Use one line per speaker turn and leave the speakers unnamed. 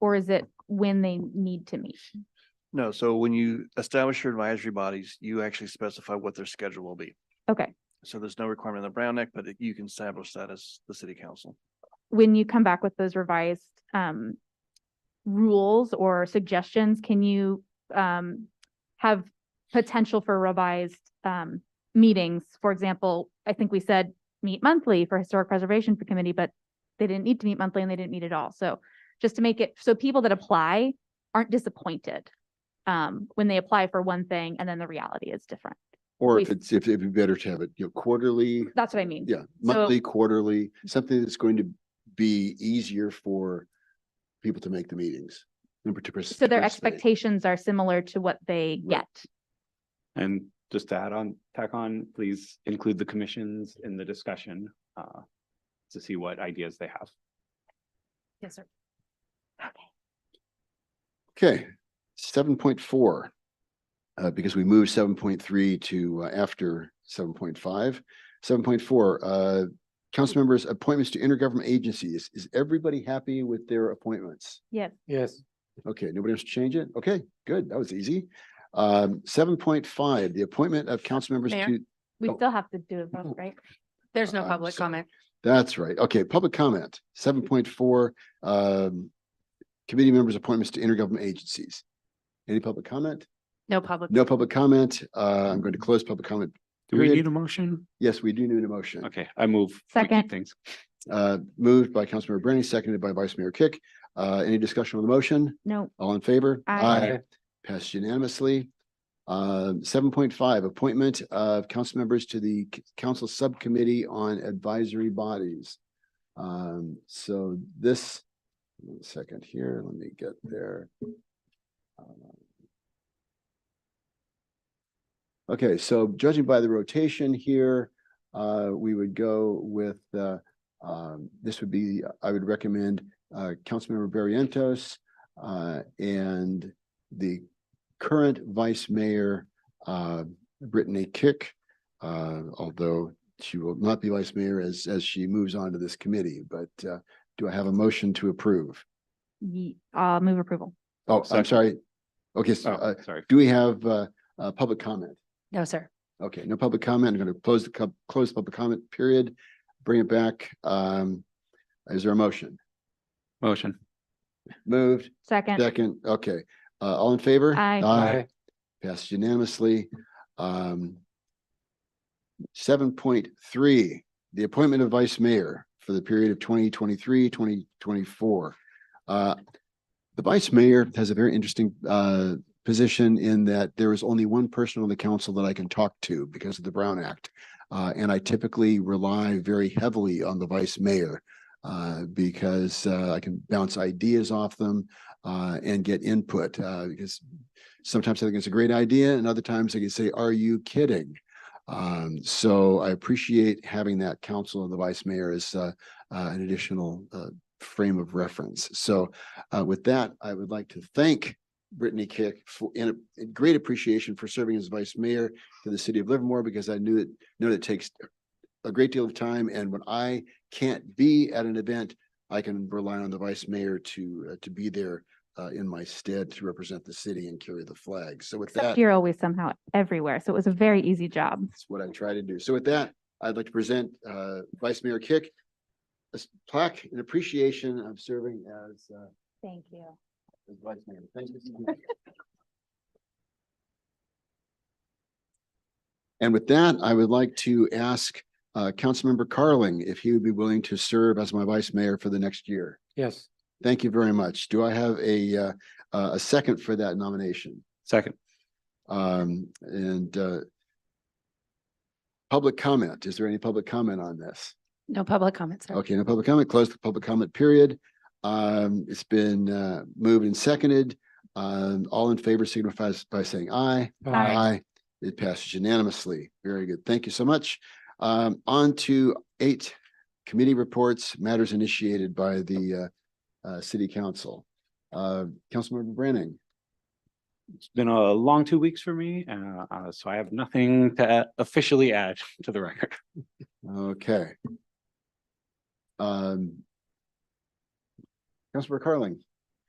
or is it when they need to meet?
No, so when you establish your advisory bodies, you actually specify what their schedule will be.
Okay,
So there's no requirement in the Brown Act, but it- you can establish that as the city council.
when you come back with those revised um rules or suggestions, can you um have potential for revised um meetings? For example, I think we said meet monthly for Historic Preservation Committee, but they didn't need to meet monthly and they didn't meet at all. So just to make it, so people that apply aren't disappointed um when they apply for one thing and then the reality is different.
Or
we-
if it's, if it'd be better to have it, you know, quarterly,
That's what I mean.
yeah, monthly, quarterly, something that's going to be easier for people to make the meetings. Number two.
So their expectations are similar to what they
Right.
get.
And just to add on, tack on, please include the commissions in the discussion uh, to see what ideas they have.
Yes, sir.
Okay, seven point four. Uh, because we moved seven point three to uh, after seven point five. Seven point four, uh, council members' appointments to intergovernment agencies. Is everybody happy with their appointments?
Yes.
Yes.
Okay, nobody else change it? Okay, good. That was easy. Um, seven point five, the appointment of council members
Mayor?
to,
We
Oh.
still have to do a vote, right?
There's no Uh,
I'm
public
sorry.
comment.
that's right. Okay, public comment, seven point four, um, committee members' appointments to intergovernment agencies. Any public comment?
No public.
No public comment. Uh, I'm going to close public comment.
Do we
Period.
need a motion?
Yes, we do need a motion.
Okay, I move. we keep
Second.
Things.
Uh, moved by Councilmember Branny, seconded by Vice Mayor Kick. Uh, any discussion on the motion?
No,
All in favor?
Aye.
Passed unanimously. Uh, seven point five, appointment of council members to the C- council subcommittee on advisory bodies. Um, so this, one second here, let me get there. Uh, Okay, so judging by the rotation here, uh, we would go with, uh, um, this would be, I would recommend, uh, Councilmember Barrientos, uh, and the current Vice Mayor, uh, Brittany Kick, uh, although she will not be Vice Mayor as, as she moves on to this committee, but, uh, do I have a motion to approve?
ye- I'll move approval.
Oh, I'm
Second.
sorry. Okay, so,
Oh,
uh,
sorry.
do we have, uh, uh, public comment?
No, sir.
Okay, no public comment. I'm going to close the, co- close public comment period, bring it back. Um, is there a motion?
Motion.
Moved,
Second,
second, okay. Uh, all in favor?
Aye.
Aye.
Passed unanimously. Um, seven point three, the appointment of vice mayor for the period of 2023, 2024. Uh, the vice mayor has a very interesting, uh, position in that there is only one person on the council that I can talk to because of the Brown Act. Uh, and I typically rely very heavily on the vice mayor, uh, because, uh, I can bounce ideas off them, uh, and get input, uh, because sometimes I think it's a great idea and other times I can say, are you kidding? Um, so I appreciate having that council and the vice mayor as, uh, uh, an additional, uh, frame of reference. So, uh, with that, I would like to thank Brittany Kick for, in a in great appreciation for serving as vice mayor to the city of Livermore, because I knew it, know that it takes a great deal of time, and when I can't be at an event, I can rely on the vice mayor to, uh, to be there uh, in my stead to represent the city and carry the flag. So with
except
that,
you're always somehow everywhere. So it was a very easy job.
that's what I try to do. So with that, I'd like to present uh, Vice Mayor Kick a s- plaque in appreciation of serving as, uh,
Thank you.
as vice mayor. Thank you. so much. And with that, I would like to ask uh, Councilmember Carling if he would be willing to serve as my vice mayor for the next year.
Yes.
Thank you very much. Do I have a, uh, uh, a second for that nomination?
Second.
Um, and, uh, public comment, is there any public comment on this?
No public comment, sir.
Okay, no public comment, close the public comment period. Um, it's been, uh, moved and seconded. Um, all in favor signifies by saying aye.
Aye.
It passes unanimously. Very good. Thank you so much. Um, on to eight committee reports, matters initiated by the, uh, uh, city council. Uh, Councilmember Branning.
It's been a long two weeks for me, uh, uh, so I have nothing to officially add to the record.
Okay. Um. Councilor Carling,